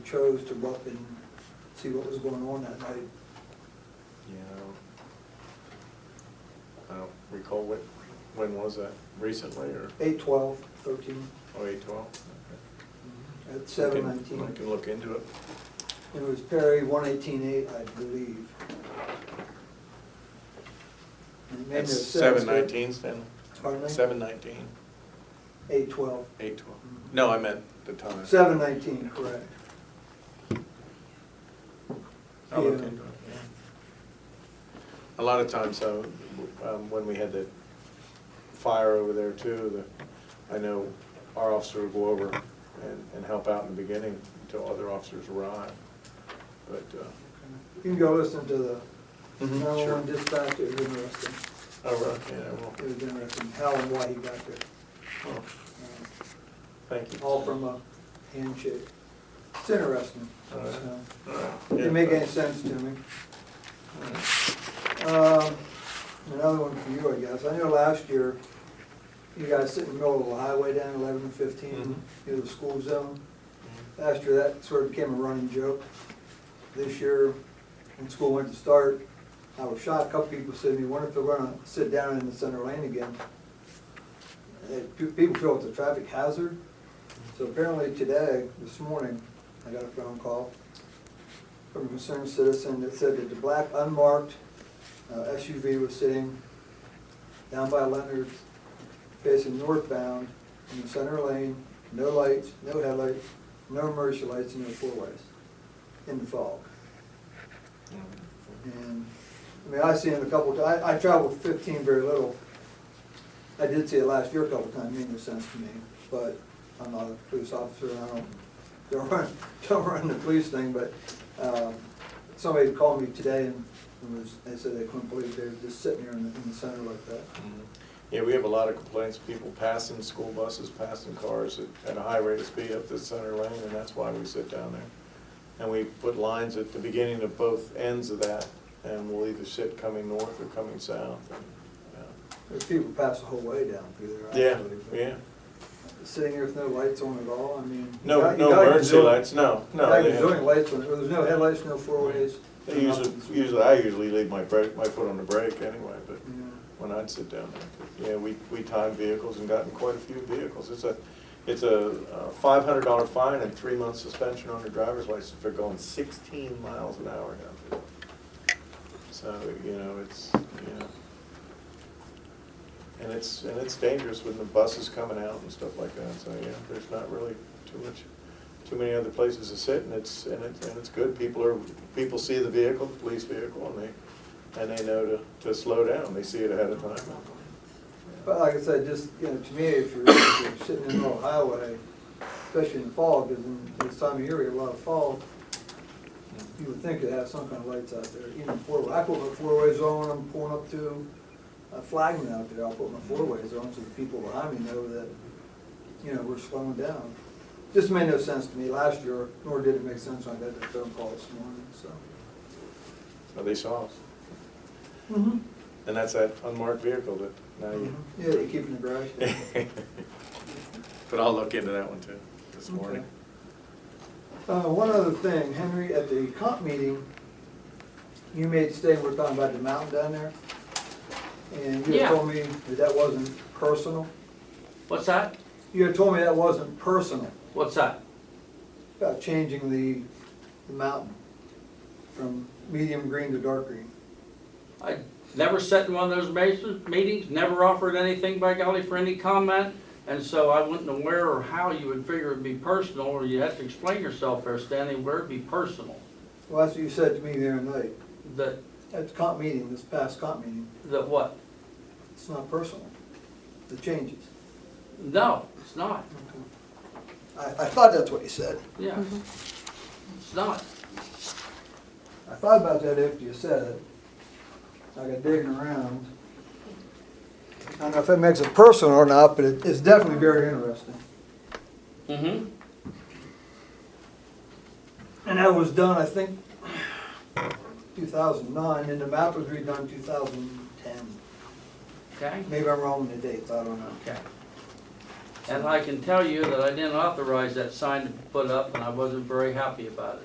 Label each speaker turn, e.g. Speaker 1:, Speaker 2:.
Speaker 1: chose to go up and see what was going on that night.
Speaker 2: Yeah. I don't- I don't recall what, when was that, recently or,
Speaker 1: Eight twelve, thirteen,
Speaker 2: oh, eight twelve?
Speaker 1: at seven nineteen.
Speaker 2: I can look into it.
Speaker 1: It was Perry, one eighteen eight, I believe. And it made no
Speaker 2: That's
Speaker 1: sense,
Speaker 2: seven
Speaker 1: but-
Speaker 2: nineteen, Stanley?
Speaker 1: Pardon me?
Speaker 2: Seven nineteen,
Speaker 1: Eight twelve.
Speaker 2: eight twelve. No, I meant the time.
Speaker 1: Mm-hmm. Seven nineteen, correct.
Speaker 2: I'll look
Speaker 1: Yeah.
Speaker 2: into it, yeah. Oh, A lot of times, so, um, when we had the fire over there too, the, I know our officer would go over and, and help out in the beginning until other officers arrived, but, uh,
Speaker 1: You can go listen to the
Speaker 2: Mhm,
Speaker 1: nine-one-one
Speaker 2: sure.
Speaker 1: dispatch, it was interesting.
Speaker 2: oh, right, yeah,
Speaker 1: It
Speaker 2: well,
Speaker 1: was interesting how and why he got there.
Speaker 2: well,
Speaker 1: Uh,
Speaker 2: thank you.
Speaker 1: All from uh, a handshake. It's interesting.
Speaker 2: All right.
Speaker 1: so.
Speaker 2: Yeah,
Speaker 1: Didn't make any
Speaker 2: but-
Speaker 1: sense to me.
Speaker 2: all right.
Speaker 1: Um, Another one for you, I guess. I know last year, you guys sit in the middle of the highway down eleven and
Speaker 2: Mhm.
Speaker 1: fifteen, near the school zone. Last year, that sort of became a running joke. This year, when school went to start, I was shocked, a couple people said to me, wonder if they're gonna sit down in the center lane again. Uh, pe- People feel it's a traffic hazard, so apparently today, this morning, I got a phone call from a concerned citizen that said that the black unmarked uh, SUV was sitting down by Leonard's facing northbound in the center lane, no lights, no headlights, no emergency lights, and no four-ways in the fog. And, I mean, I seen it a couple, ti- I, I traveled fifteen very little. I did see it last year a couple times, made no sense to me, but I'm not a police officer, and I don't, don't run, don't run the police thing, but, um, somebody called me today and and was, they said they couldn't believe they were just sitting there in the, in the center like that.
Speaker 2: Mhm. Yeah, we have a lot of complaints, people passing school buses, passing cars at- at a high rate of speed up the center lane, and that's why we sit down there. And we put lines at the beginning of both ends of that, and we'll either sit coming north or coming south. and, yeah.
Speaker 1: There's people pass the whole way down through there.
Speaker 2: Yeah,
Speaker 1: actually, but
Speaker 2: yeah.
Speaker 1: Sitting there with no lights on at all, I mean. you
Speaker 2: No,
Speaker 1: got- you
Speaker 2: no
Speaker 1: got your
Speaker 2: emergency
Speaker 1: zone-
Speaker 2: lights, no,
Speaker 1: you got
Speaker 2: no.
Speaker 1: your
Speaker 2: they have-
Speaker 1: zoning lights on, it. there's no headlights, no four-ways.
Speaker 2: They Usually, usually, I usually leave my brake, my foot on the brake anyway, but.
Speaker 1: Yeah.
Speaker 2: when I'd sit down there. Yeah, we, we timed vehicles and gotten quite a few vehicles. It's a, it's a five hundred dollar fine and three months suspension on your driver's license for going sixteen miles an hour down there. So, you know, it's, you know. And it's, and it's dangerous when the buses coming out and stuff like that, so, yeah, there's not really too much, too many other places to sit, and it's, and it's, and it's good. People are, people see the vehicle, the police vehicle, and they, and they know to, to slow down, they see it ahead of time.
Speaker 1: But like I said, just, you know, to me, if you're, if you're sitting in the middle of the highway, especially in the fog, because in this time of year, we have a lot of fog, you would think it'd have some kind of lights out there, even four, I put my four-ways on, I'm pulling up to a flagman out there, I'll put my four-ways on so the people behind me know that, you know, we're slowing down. Just made no sense to me last year, nor did it make sense when I got that phone call this morning, so.
Speaker 2: So they saw us. And that's that unmarked vehicle that now you.
Speaker 1: Yeah, they're keeping the garage down.
Speaker 2: But I'll look into that one too, this morning.
Speaker 1: Uh, one other thing, Henry, at the comp meeting, you made a statement, we're talking about the mountain down there. And you
Speaker 3: Yeah.
Speaker 1: had told me that that wasn't personal.
Speaker 3: What's that?
Speaker 1: You had told me that wasn't personal,
Speaker 3: What's that?
Speaker 1: about changing the, the mountain from medium green to dark green.
Speaker 3: I never sat in one of those ma- meetings, never offered anything by golly for any comment, and so I wasn't aware or how you would figure it'd be personal, or you have to explain yourself there, Stanley, where it'd be personal.
Speaker 1: Well, that's what you said to me the other night,
Speaker 3: That,
Speaker 1: at the comp meeting, this past comp meeting,
Speaker 3: that what?
Speaker 1: it's not personal, the changes.
Speaker 3: No, it's not,
Speaker 1: I, I thought that's what you said.
Speaker 3: yeah. It's not.
Speaker 1: I thought about that after you said it. I got digging around. I don't know if that makes it personal or not, but it- it's definitely very interesting.
Speaker 3: Mm-hmm.
Speaker 1: And that was done, I think, 2009, and the map was redone 2010.
Speaker 3: Okay,
Speaker 1: Maybe I'm wrong in the dates, I don't know.
Speaker 3: okay. And I can tell you that I didn't authorize that sign to be put up, and I wasn't very happy about it.